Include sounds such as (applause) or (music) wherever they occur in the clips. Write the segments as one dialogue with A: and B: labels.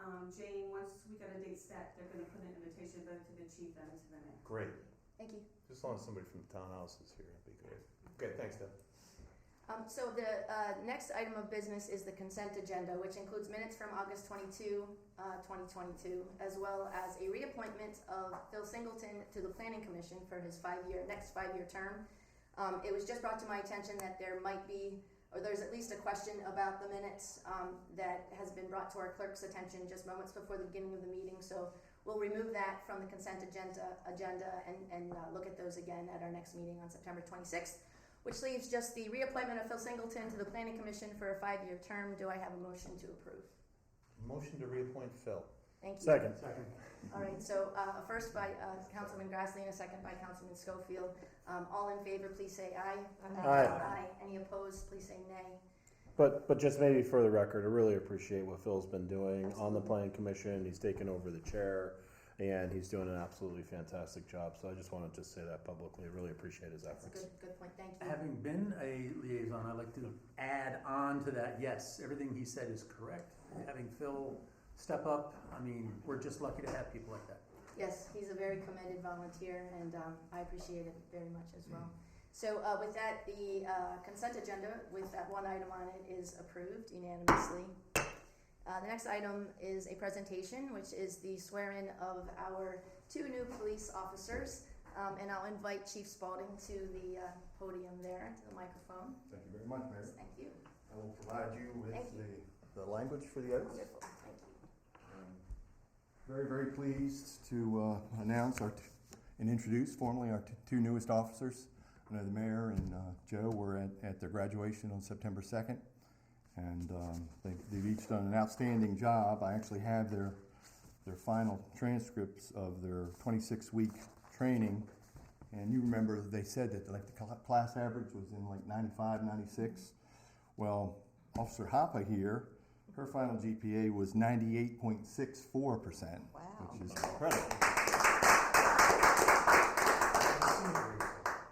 A: um, Jane, once we get a date set, they're gonna put an invitation both to the chief and to the mayor.
B: Great.
C: Thank you.
B: Just as long as somebody from the townhouse is here, that'd be great. Okay, thanks, Deb.
C: Um, so the, uh, next item of business is the consent agenda, which includes minutes from August twenty-two, uh, twenty twenty-two, as well as a reappointment of Phil Singleton to the planning commission for his five-year, next five-year term. Um, it was just brought to my attention that there might be, or there's at least a question about the minutes, um, that has been brought to our clerk's attention just moments before the beginning of the meeting, so we'll remove that from the consent agenda, agenda and, and, uh, look at those again at our next meeting on September twenty-sixth. Which leaves just the reappointment of Phil Singleton to the planning commission for a five-year term. Do I have a motion to approve?
B: Motion to reappoint Phil.
C: Thank you.
D: Second.
C: All right, so, uh, a first by, uh, Councilman Grassley and a second by Councilman Schofield. Um, all in favor, please say aye.
D: Aye.
C: Any opposed, please say nay.
D: But, but just maybe for the record, I really appreciate what Phil's been doing on the
C: Absolutely.
D: planning commission. He's taken over the chair and he's doing an absolutely fantastic job. So I just wanted to say that publicly. I Really appreciate his
C: That's a
D: efforts.
C: good, good point, thank you.
E: Having been a liaison, I'd like to add on to that, yes, everything he said is correct. Having Phil step up, I mean, we're just lucky to have people like that.
C: Yes, he's a very commended volunteer, and um, I appreciate it very much as well. So uh, with that, the uh, consent agenda with that one item on it is approved unanimously. Uh, The next item is a presentation, which is the swearing of our two new police officers. Um, And I'll invite Chief Spalding to the uh, podium there, to the microphone.
F: Thank you very much, Mayor.
C: Thank you.
F: I will provide you with
C: Thank you.
F: the, the language for the oath.
C: Wonderful, thank you.
F: I'm Very, very pleased to uh, announce our, t- and introduce formally our t- two newest officers. I know the mayor and uh, Joe were at, at their graduation on September 2nd, and um, they've, they've each done an outstanding job. I actually have their, their final transcripts of their 26-week training. And you remember, they said that like the cl- class average was in like 95, 96. Well, Officer Hoppe here, her final GPA was 98.64%. Wow. Which is
B: Incredible.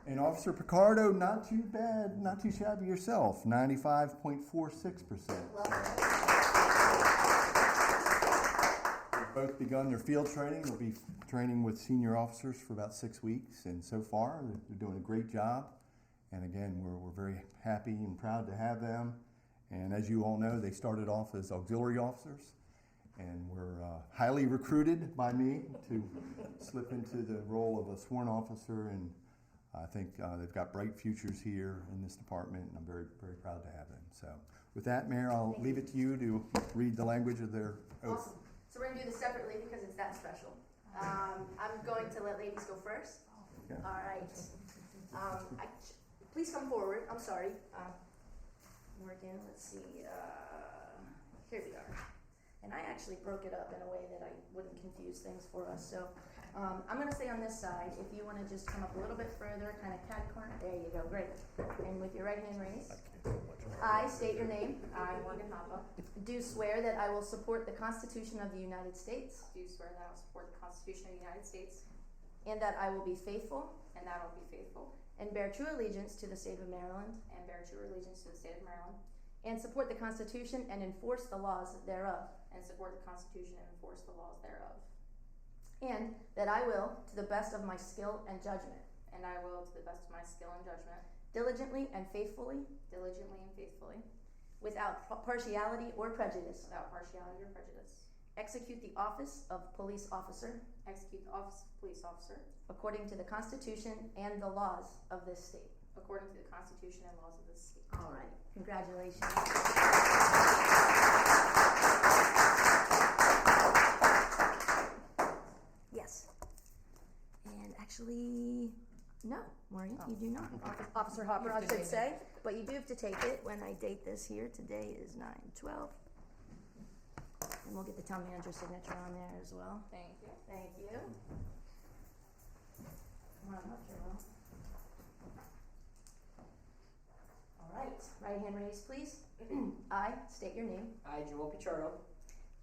F: And Officer Picardo, not too bad, not too shabby yourself, 95.46%. They've both begun their field training. They'll be training with senior officers for about six weeks, and so far they're- they're doing a great job. And again, we're, we're very happy and proud to have them. And as you all know, they started off as auxiliary officers and were uh, highly recruited by me to slip into the role of a sworn officer. And I think uh, they've got bright futures here in this department, and I'm very, very proud to have them. So, with that, Mayor, I'll leave it to you to read the language of their oath.
C: Awesome. So we're gonna do this separately because it's that special. Um, I'm going to let ladies go first.
F: Okay.
C: All right. Um, I, please come forward. I'm sorry. Uh, Morgan, let's see. Uh, here we are. And I actually broke it up in a way that I wouldn't confuse things for us. So um, I'm gonna stay on this side. If you wanna just come up a little bit further, kind of cat corner. There you go. Great. And with your right hand raised. I state your name.
A: I, Morgan Hoppe,
C: Do swear that I will support the Constitution of the United States
A: do swear that I will support the Constitution of the United States
C: and that I will be faithful
A: and that I will be faithful
C: and bear true allegiance to the state of Maryland
A: and bear true allegiance to the state of Maryland
C: and support the Constitution and enforce the laws thereof.
A: and support the Constitution and enforce the laws thereof.
C: And that I will, to the best of my skill and judgment,
A: And I will, to the best of my skill and judgment,
C: diligently and faithfully,
A: diligently and faithfully,
C: without par- partiality or prejudice,
A: without partiality or prejudice,
C: execute the office of police officer
A: execute the office of police officer
C: according to the Constitution and the laws of this state.
A: according to the Constitution and laws of this state.
C: All right, congratulations. Yes. And actually, no, Maureen, you do not. Offi- Oh, Officer Hopper, I should say, but you do have to take it when I date this here. Today is nine twelve. And we'll get the town manager's signature on there as well.
A: Thank you.
C: Thank you. Come on up here, Will. All right, right hand raised, please. (clears throat) I state your name.
G: I, Joel Pichardo,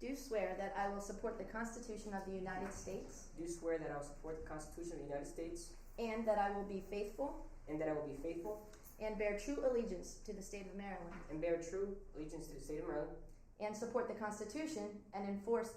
C: Do swear that I will support the Constitution of the United States
G: do swear that I will support the Constitution of the United States
C: and that I will be faithful
G: and that I will be faithful
C: and bear true allegiance to the state of Maryland
G: and bear true allegiance to the state of Maryland
C: and support the Constitution and enforce